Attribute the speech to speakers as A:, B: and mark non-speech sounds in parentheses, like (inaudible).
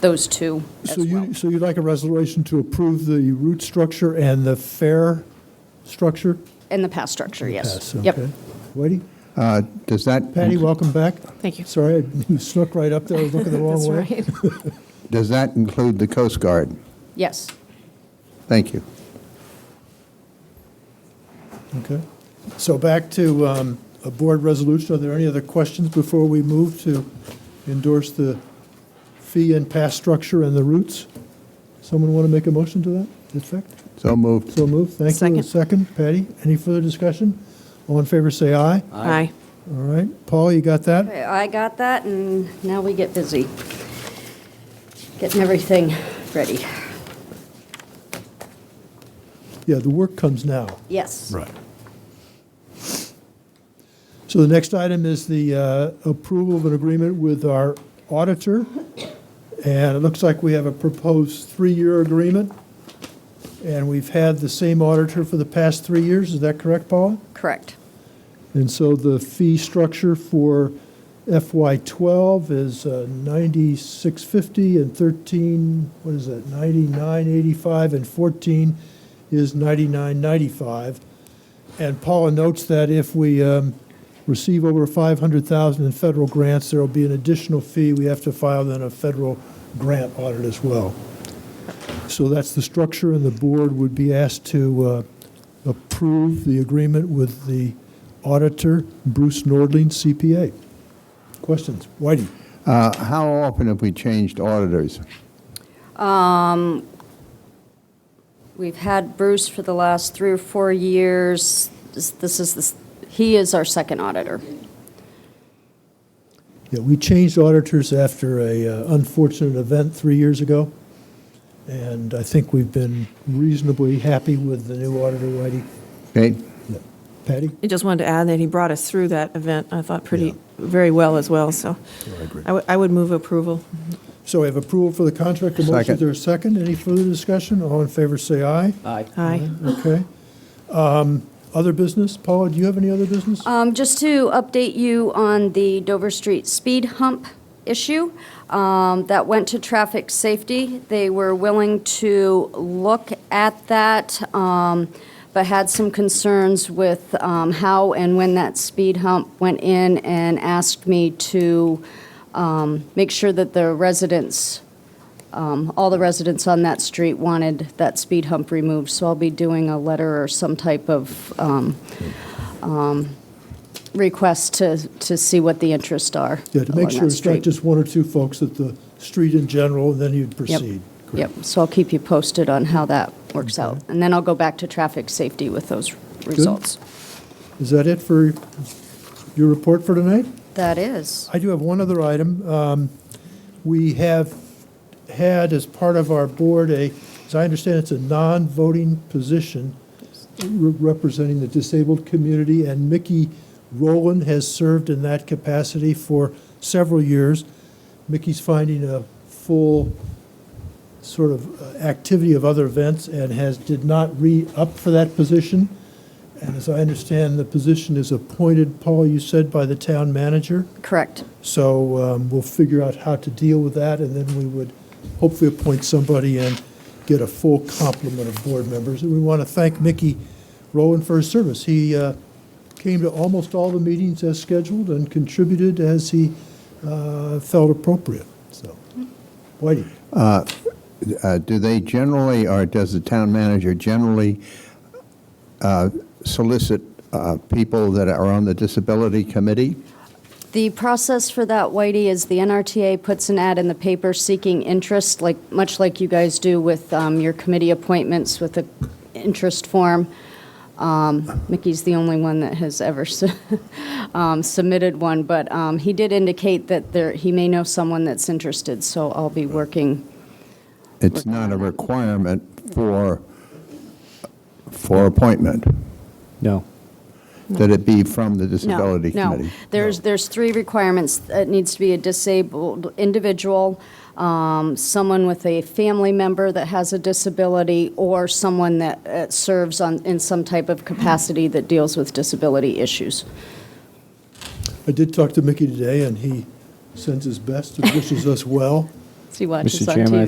A: those two as
B: So
A: well.
B: you, so you'd like a resolution to approve the root structure and the fare structure?
A: And the pass structure, yes.
B: Yes,
A: Yep.
B: okay. Whitey?
C: Uh, Does that?
B: Patty, welcome back.
D: Thank you.
B: Sorry, I (laughs) snuck right up there, I was looking the wrong
D: That's
B: way.
D: right. (laughs)
C: Does that include the Coast Guard?
A: Yes.
C: Thank you.
B: Okay. So back to um, a board resolution. Are there any other questions before we move to endorse the fee and pass structure and the routes? Someone want to make a motion to that effect?
C: So moved.
B: So moved. Thank you. A
D: Second.
B: Second. Patty, any further discussion? All in favor, say aye.
D: Aye.
B: All right. Paul, you got that?
A: I got that, and now we get busy. Getting everything ready.
B: Yeah, the work comes now.
A: Yes.
B: Right. So the next item is the uh, approval of an agreement with our auditor. And it looks like we have a proposed three-year agreement. And we've had the same auditor for the past three years, is that correct, Paula?
A: Correct.
B: And so the fee structure for FY '12 is uh, 96.50 and 13, what is that, 99.85 and 14 is 99.95. And Paula notes that if we um, receive over 500,000 in federal grants, there will be an additional fee. We have to file then a federal grant audit as well. So that's the structure, and the board would be asked to uh, approve the agreement with the auditor, Bruce Nordling, CPA. Questions? Whitey?
C: Uh, How often have we changed auditors?
A: We've had Bruce for the last three or four years. This this is, the he is our second auditor.
B: Yeah, we changed auditors after a uh, unfortunate event three years ago, and I think we've been reasonably happy with the new auditor, Whitey.
C: Okay,
B: Patty?
D: I just wanted to add that he brought us through that event, I thought, pretty, very well as well, so. Oh, I agree. would move approval.
B: So we have approval for the contract, a motion,
C: Second.
B: is there a second? Any further discussion? All in favor, say aye.
E: Aye.
D: Aye.
B: Okay. Um, Other business? Paula, do you have any other business?
A: Um, Just to update you on the Dover Street speed hump issue, um, that went to traffic safety. They were willing to look at that, um, but had some concerns with um, how and when that speed hump went in and asked me to um, make sure that the residents, um, all the residents on that street wanted that speed hump removed. So I'll be doing a letter or some type of um, request to, to see what the interests are.
B: Yeah, to make
A: along
B: sure
A: Oh, that
B: it's not
A: street.
B: just one or two folks at the street in general, and then you'd
A: Yep,
B: proceed.
A: Yep, so I'll keep you posted on how that works out. And then I'll go back to traffic safety with those results.
B: Is that it for your report for tonight?
A: That is.
B: I do have one other item. Um, We have had as part of our board a, as I understand, it's a non-voting position re- representing the disabled community, and Mickey Rowland has served in that capacity for several years. Mickey's finding a full sort of uh, activity of other events and has, did not re-up for that position. And as I understand, the position is appointed, Paul, you said, by the town manager.
A: Correct.
B: So um, we'll figure out how to deal with that, and then we would hopefully appoint somebody and get a full complement of board members. And we want to thank Mickey Rowan for his service. He uh, came to almost all the meetings as scheduled and contributed as he uh, felt appropriate, so. Whitey?
C: Uh, do they generally, or does the town manager generally uh, solicit uh, people that are on the disability committee?
A: The process for that, Whitey, is the NRTA puts an ad in the paper seeking interest, like, much like you guys do with um, your committee appointments with the interest form. Um, Mickey's the only one that has ever su- (laughs) um, submitted one, but um, he did indicate that there, he may know someone that's interested, so I'll be working.
C: It's not a requirement for, for appointment,
E: No.
C: that it be from the
A: No,
C: disability
A: no.
C: committee.
A: There's, there's three requirements. It needs to be a disabled individual, um, someone with a family member that has a disability, or someone that uh, serves on, in some type of capacity that deals with disability issues.
B: I did talk to Mickey today, and he sends his best and wishes us well.
E: She watches
A: Mr.
E: on
A: Chairman, I
E: TV.